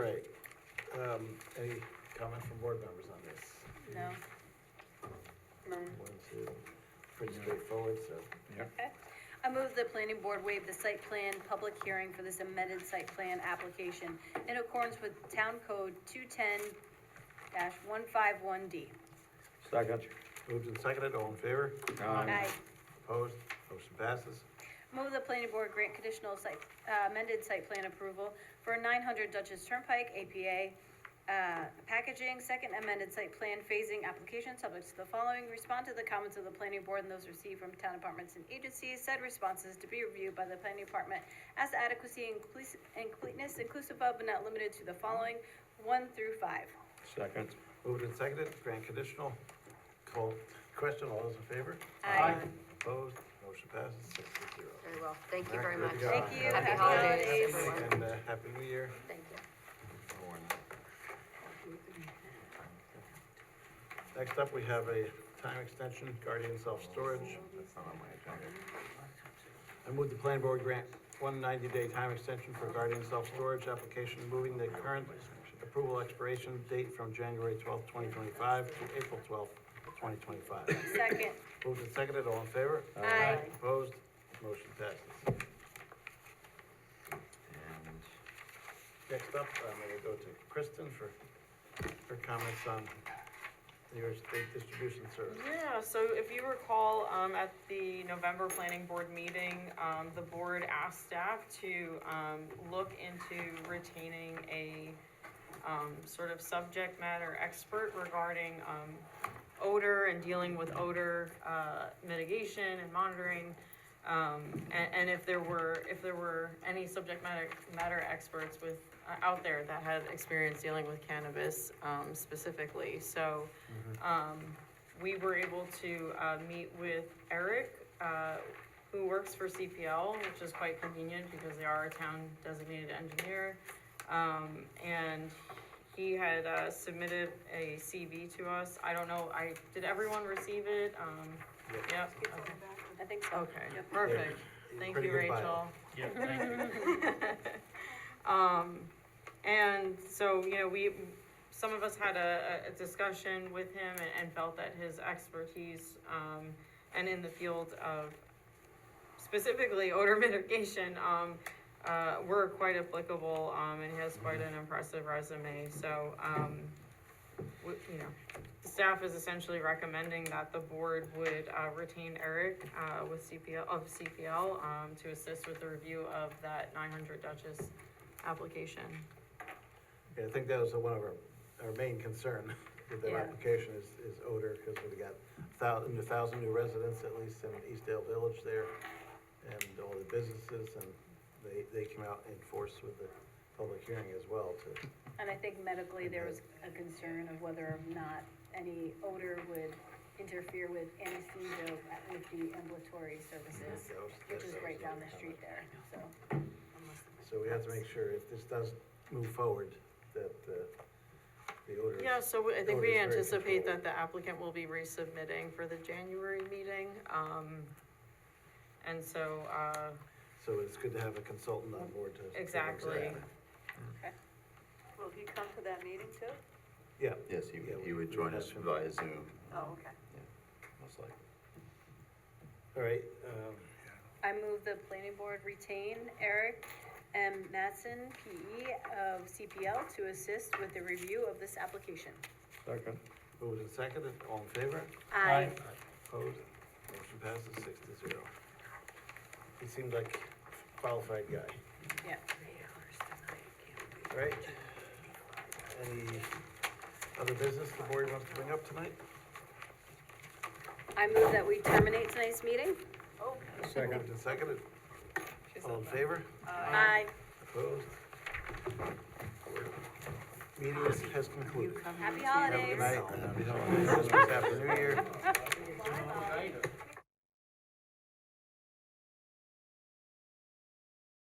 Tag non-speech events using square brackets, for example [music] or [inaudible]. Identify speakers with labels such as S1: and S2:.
S1: Um, any comment from board members on this?
S2: No. None.
S1: One, two, pretty straightforward, so.
S2: I move the planning board waive the site plan public hearing for this amended site plan application in accordance with town code two ten one five one D.
S3: Second.
S1: Moved and seconded, all in favor?
S2: Aye.
S1: Opposed? Motion passes.
S2: Move the planning board grant conditional site, uh, amended site plan approval for nine hundred Dutchess Turnpike APA, uh, packaging, second amended site plan phasing application subject to the following. Respond to the comments of the planning board and those received from town departments and agencies. Said responses to be reviewed by the planning department as to adequacy and complete- and completeness inclusive of but not limited to the following, one through five.
S3: Second.
S1: Moved and seconded, grant conditional. Call, question, all those in favor?
S2: Aye.
S1: Opposed? Motion passes six to zero.
S4: Very well, thank you
S1: All
S4: very
S1: right,
S4: much.
S1: good job.
S2: Thank you.
S4: Happy holidays, everyone.
S1: And, uh, happy new year.
S4: Thank you.
S1: Next up, we have a time extension, Guardian Self-Storage. I move the planning board grant one ninety-day time extension for Guardian Self-Storage application, moving the current approval expiration date from January twelfth, twenty twenty-five to April twelfth, twenty twenty-five.
S2: Second.
S1: Moved and seconded, all in favor?
S2: Aye.
S1: Opposed? Motion passes. Next up, uh, I'm gonna go to Kristen for her comments on New York State Distribution Service.
S5: Yeah, so if you recall, um, at the November planning board meeting, um, the board asked staff to, um, look into retaining a, um, sort of subject matter expert regarding, um, odor and dealing with odor, uh, mitigation and monitoring. Um, and, and if there were, if there were any subject matter, matter experts with, uh, out there that had experience dealing with cannabis, um, specifically, so, um, we were able to uh, meet with Eric, uh, who works for CPL, which is quite convenient because they are a town designated engineer. Um, and he had uh, submitted a CV to us. I don't know, I, did everyone receive it? Um, yep. okay.
S2: I think so.
S5: Okay, perfect. Thank
S1: Pretty
S5: you,
S1: good bio.
S5: Rachel. [laughs]
S6: Yeah, thank you.
S5: Um, and so, you know, we, some of us had a, a discussion with him and, and felt that his expertise, um, and in the field of specifically odor [laughs] mitigation, um, uh, were quite applicable, um, and he has quite
S6: Mm-hmm.
S5: an impressive resume, so, um, we, you know, staff is essentially recommending that the board would, uh, retain Eric, uh, with CPL, of CPL, um, to assist with the review of that nine hundred Duchess application.
S1: Yeah, I think that was one of our, our main concern with their
S5: Yeah.
S1: application is, is odor, because we've got thousand, a thousand new residents at least in Eastdale Village there, and all the businesses, and they, they came out in force with the public hearing as well to,
S2: And I think medically, there was a concern of whether or not any odor would interfere with anesthesia with the ambulatory services,
S1: that was-
S2: which
S1: that-
S2: is
S1: that
S2: right
S1: was
S2: down
S1: our
S2: the street
S1: comment.
S2: there, so.
S1: So we have to make sure if this does move forward, that, uh, the odor.
S5: Yeah, so we- I think
S1: Or is
S5: we
S1: very
S5: anticipate
S1: controlled.
S5: that the applicant will be resubmitting for the January meeting, um, and so, uh,
S1: So it's good to have a consultant on board to.
S5: Exactly.
S7: Will he come to that meeting too?
S1: Yeah,
S8: Yes, he would, he would join us via Zoom,
S7: Oh, okay.
S8: most likely.
S1: all right, um,
S2: I move the planning board retain Eric M. Matson, PE of CPL, to assist with the review of this application.
S3: Second.
S1: moved and seconded, all in favor?
S2: Aye.
S1: Opposed? Motion passes six to zero. He seemed like a qualified guy,
S2: Yeah.
S1: All right? Any other business the board wants to bring up tonight?
S2: I move that we terminate tonight's meeting.
S1: Moved and seconded, all in favor?
S2: Aye.
S1: Opposed? Meeting is- has concluded. Have
S2: Happy
S1: a
S2: holidays.
S1: good night, happy holidays, Christmas, happy new year.